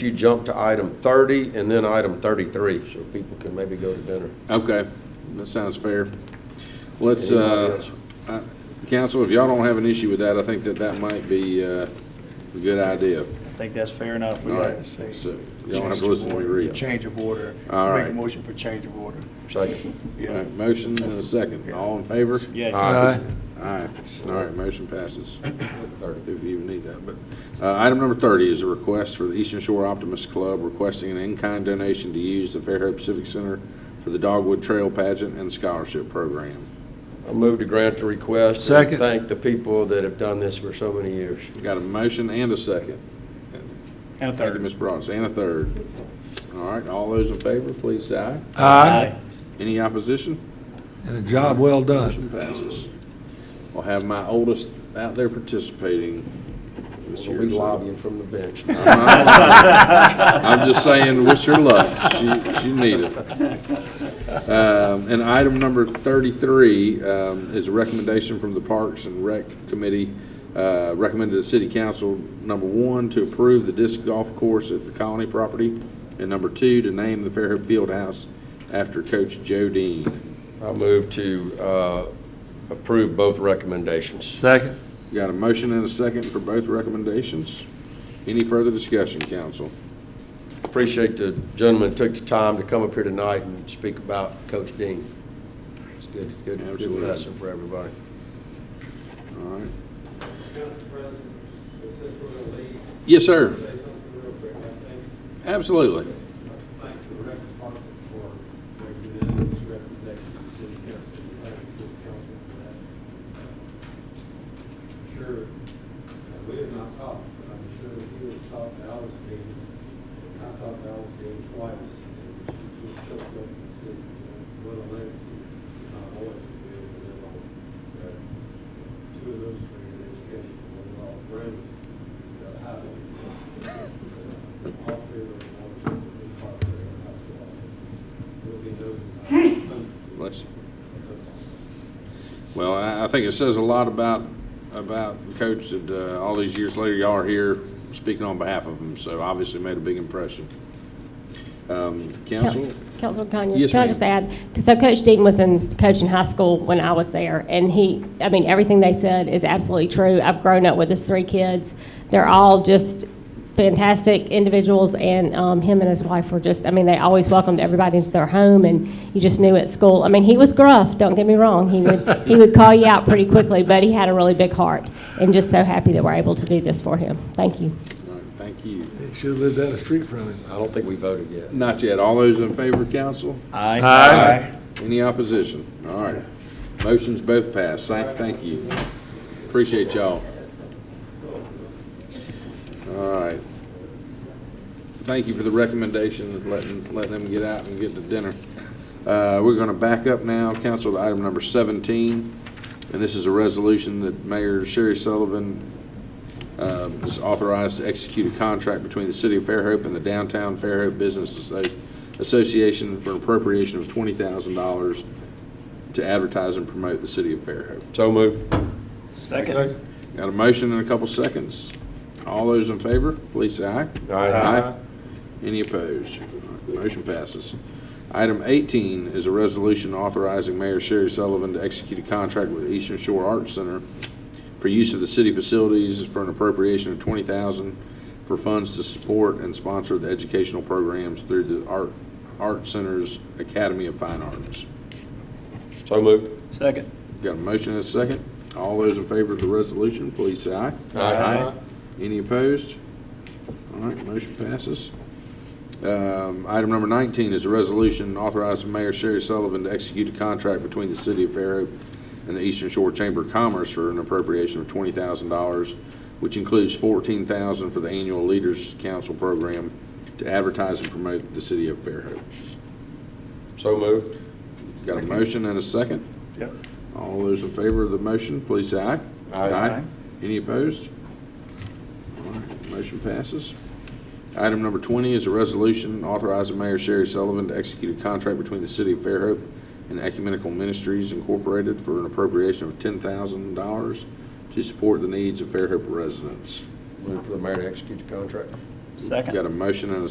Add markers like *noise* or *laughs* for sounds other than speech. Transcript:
you jump to item 30 and then item 33, so people can maybe go to dinner. Okay, that sounds fair. Let's, Anybody uh, else? uh, council, if y'all don't have an issue with that, I think that that might be uh, a good idea. I think that's fair enough. We All got- right, so Say- y'all don't have to listen to me read. Change of order. All Make right. a motion for change of order. Second. All right, Motion and a second, all in favor? Yes. Aye. All right, all right, motion passes, if you even need that, but, uh, item number thirty is a request for the Eastern Shore Optimist Club requesting an in-kind donation to use the Fairhope Civic Center for the Dogwood Trail Pageant and Scholarship Program. I move to grant the request. Second. And thank the people that have done this for so many years. We Got a motion and a second. And a Thank you, third. Ms. Brodts, and a third. All right, all those in favor, please say aye. Aye. Any opposition? And a job well done. Motion passes. I'll have my oldest out there participating this So year. we so- *laughs* lobbying from the *laughs* bench. I'm just saying, wish her luck. She, she need it. Um, and item number thirty-three, um, is a recommendation from the Parks and Rec Committee, uh, recommended to the city council, number one, to approve the disc golf course at the Colony property, and number two, to name the Fairhope Fieldhouse after Coach Joe Dean. I move to uh, approve both recommendations. Second. Got a motion and a second for both recommendations. Any further discussion, council? Appreciate the gentleman took the time to come up here tonight and speak about Coach Dean. It's good, good, good Absolutely. lesson for everybody. All right. Council President, since we're going to leave, Yes, sir. say something real quick, I think. Absolutely. Thank the rec department for their unanimous recommendation to the city council. Thank the city council for that. I'm Sure, uh, we have not talked, but I'm sure that you have talked to Alice Dean. I talked to Alice Dean twice, and she was choked up and said, uh, what a legacy my boys will be able to live on. Uh, Two of those were in education, one of all friends, so highly. Bless you. Well, I, I think it says a lot about, about Coach that, uh, all these years later, y'all are here speaking on behalf of him, so obviously made a big impression. Um, council? Councilman Conyers? Yes, Can I ma'am. just add, 'cause so Coach Deaton was in coaching high school when I was there, and he, I mean, everything they said is absolutely true. I've grown up with his three kids. They're all just fantastic individuals, and um, him and his wife were just, I mean, they always welcomed everybody into their home, and you just knew at school. I mean, he was gruff, don't get me wrong. He would, he would call you out pretty quickly, but he had a really big heart, and just so happy that we're able to do this for him. Thank you. All right, Thank you. He should have lived down the street from him. I don't think we voted yet. Not yet. All those in favor, council? Aye. Any opposition? All right. Motion's both passed. Thank, thank you. Appreciate y'all. All right. Thank you for the recommendation of letting, letting them get out and get to dinner. Uh, we're gonna back up now, council, to item number seventeen. And this is a resolution that Mayor Sherry Sullivan, uh, is authorized to execute a contract between the City of Fairhope and the Downtown Fairhope Business Asso- Association for an appropriation of $20,000 to advertise and promote the City of Fairhope. So moved. Second. Got a motion and a couple seconds. All those in favor, please say aye. Aye. Any opposed? Motion passes. Item 18 is a resolution authorizing Mayor Sherry Sullivan to execute a contract with Eastern Shore Arts Center for use of the city facilities for an appropriation of 20000 for funds to support and sponsor the educational programs through the Art, Art Center's Academy of Fine Arts. So moved. Second. Got a motion and a second. All those in favor of the resolution, please say aye. Aye. Any opposed? All right, motion passes. Um, Item number 19 is a resolution authorizing Mayor Sherry Sullivan to execute a contract between the City of Fairhope and the Eastern Shore Chamber of Commerce for an appropriation of $20,000, which includes $14,000 for the annual Leaders Council Program to advertise and promote the City of Fairhope. So moved. Got a motion and a second? Yep. All those in favor of the motion, please say aye. Aye. Any opposed? All right, Motion passes. Item number 20 is a resolution authorizing Mayor Sherry Sullivan to execute a contract between the City of Fairhope and Ecumenical Ministries Incorporated for an appropriation of $10,000 to support the needs of Fairhope residents. Move for the mayor to execute the contract. Second. Got a motion and a